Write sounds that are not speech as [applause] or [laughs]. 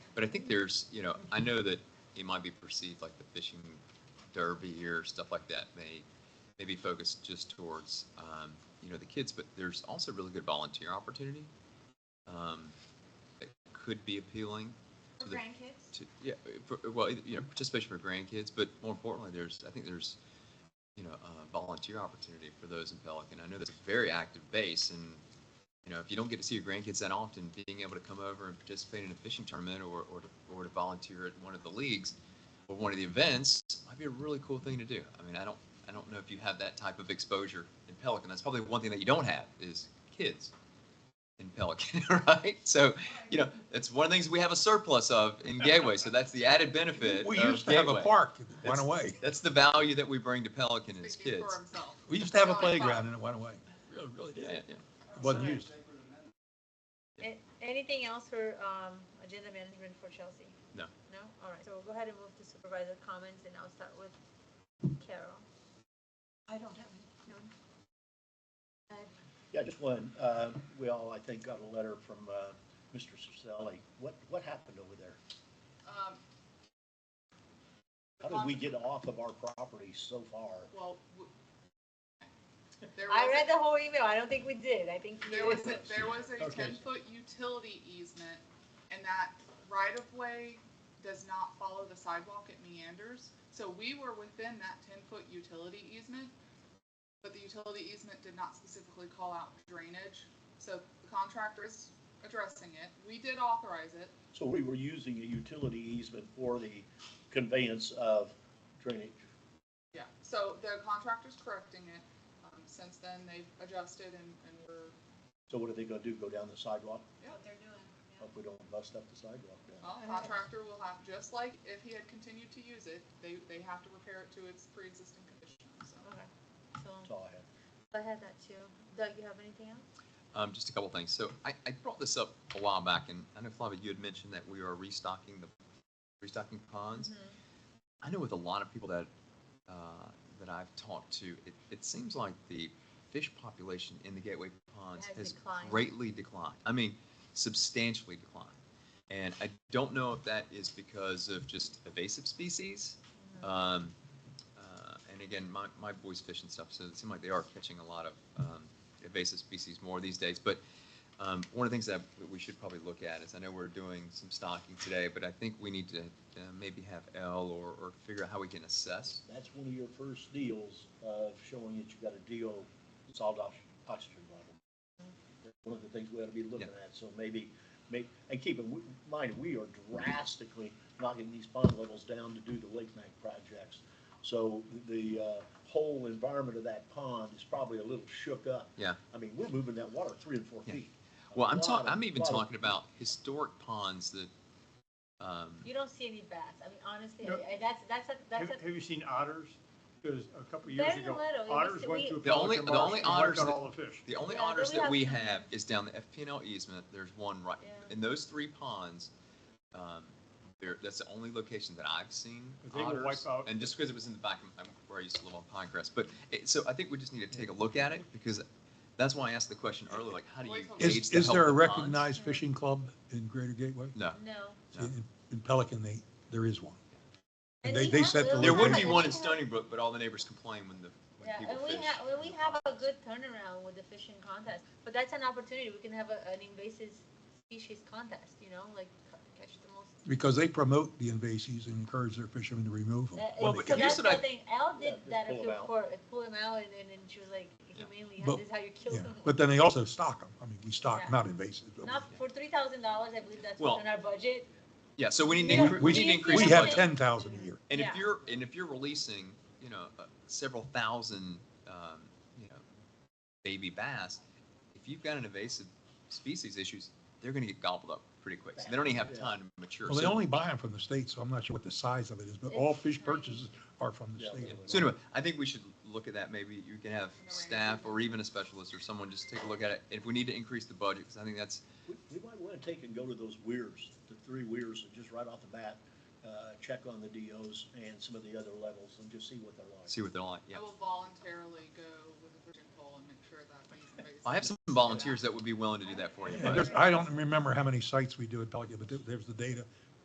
But I think there's, you know, I know that it might be perceived like the fishing derby or stuff like that may maybe focus just towards um, you know the kids, but there's also really good volunteer opportunity um, that could be appealing For to the grandkids? to, yeah, for, well, you know, participation for grandkids, but more importantly, there's, I think there's, you know, uh, volunteer opportunity for those in Pelican. I know that's a very active base, and you know, if you don't get to see your grandkids that often, being able to come over and participate in a fishing tournament or or to, or to volunteer at one of the leagues or one of the events might be a really cool thing to do. I mean, I don't, I don't know if you have that type of exposure in Pelican. That's probably one thing that you don't have is kids in Pelican, [laughs] right? So, you know, that's one of the things we have a surplus of in Gateway. So that's the added benefit. We of used to have a Gateway. park, it went That's- away. That's the value that we bring to Pelican as Speaking for kids. himself. We used to have a playground and it went away. Really, really did. Yeah, yeah. Wasn't used. A- Anything else for um, agenda management for Chelsea? No. No? All right, so we'll go ahead and move to supervisor comments, and I'll start with Carol. I don't have any. Yeah, just one. Uh, We all, I think, got a letter from uh, Mr. Ciselli. What, what happened over there? Um, How did we get off of our property so far? well, w- there I was- read the whole email, I don't think we did, I think There you, was, [laughs] a- there was a Okay. ten-foot utility easement, and that right-of-way does not follow the sidewalk, it meanders. So we were within that ten-foot utility easement, but the utility easement did not specifically call out drainage. So the contractor is addressing it, we did authorize it, So we were using a utility easement for the conveyance of drainage. yeah, so the contractor's correcting it. Um, Since then, they've adjusted and, and we're, So what are they gonna do, go down the sidewalk? What they're doing. Hope we don't bust up the sidewalk down. well, contractor will have, just like if he had continued to use it, they, they have to repair it to its pre-existing condition, so. That's So, um, all I have. I had that too. Doug, you have anything else? Um, just a couple things. So I, I brought this up a while back, and I know Flavia, you had mentioned that we are restocking the restocking ponds. Mm-hmm. I know with a lot of people that uh, that I've talked to, it, it seems like the fish population in the Gateway ponds Has has declined. greatly declined. I mean, substantially declined. And I don't know if that is because of just invasive species. Mm-hmm. Um, uh, and again, my, my boys fish and stuff, so it seems like they are catching a lot of um, invasive species more these days. But um, one of the things that we should probably look at is, I know we're doing some stocking today, but I think we need to uh, maybe have L or, or figure out how we can assess. That's one of your first deals of showing that you got a deal, solid ox- oxygen level. That's One of the things we ought to be looking at, so maybe, make, and keep in mind, we are drastically knocking these pond levels down to do the lake bank projects. So the, uh, whole environment of that pond is probably a little shook up. Yeah. I mean, we're moving that water three and four Yeah. feet. Well, I'm Lot talking, of- I'm even lot of- talking about historic ponds that, um, You don't see any bats, I mean, honestly, No. I- I- that's, that's, a- Have, that's, a- have you seen otters? Because a couple of Very years ago, little. It was- otters went we- to The only- Pelican the Marsh only and wiped otters out that- all the fish. the only Yeah, but otters we that have we some- have is down the FPNL easement. There's one right, Yeah. in those three ponds, um, there, that's the only location that I've seen But they will wipe otters. out- And just because it was in the back of, I'm- where I used to live on Pinecrest, but, it- so I think we just need to take a look at it because that's why I asked the question earlier, like, how do you gauge Is, the is health there a of ponds? recognized fishing club in Greater Gateway? No. no. No. In- In Pelican, they, there is one. And They- we they have- set the we There would have be a- one in Stony Brook, but all the neighbors complain when the, when Yeah, and people we fish. have, well, we have a good turnaround with the fishing contest, but that's an opportunity, we can have a, an invasive species contest, you know, like ca- catch the most. Because they promote the invasives and encourage their fishermen to remove them. That- Well, so but here's that's what the I- thing, Elle Yeah, did just that pull at 'em the out. court, pull him out, and then, and she was like, humanely, But- this is how you kill Yeah, someone. but then they also stock them. I mean, we Yeah. stock, not invasive. but Not for three thousand dollars, I believe that's Well, within our budget. Yeah, so we need, Yeah. to incre- we We- need to we- increase We the have budget. ten thousand a year. And if Yeah. you're, and if you're releasing, you know, uh, several thousand, um, you know, baby bass, if you've got an invasive species issues, they're gonna get gobbled up pretty quick. So they don't even have Yeah. time to mature. Well, they So- only buy them from the state, so I'm not sure what the size of it is, but all fish purchases are from the Yeah. state. So anyway, I think we should look at that. Maybe you can have Alright. staff or even a specialist or someone just take a look at it. If we need to increase the budget, because I think that's, We we might want to take and go to those weirs, the three weirs, and just right off the bat, uh, check on the DOs and some of the other levels and just see what they're like. see what they're like, yeah. I will voluntarily go with a fishing pole and make sure that he's invasive. I have some [laughs] volunteers that would be willing to do that for you. And but- there's, I don't remember how many sites we do at Pelican, but there- there's the data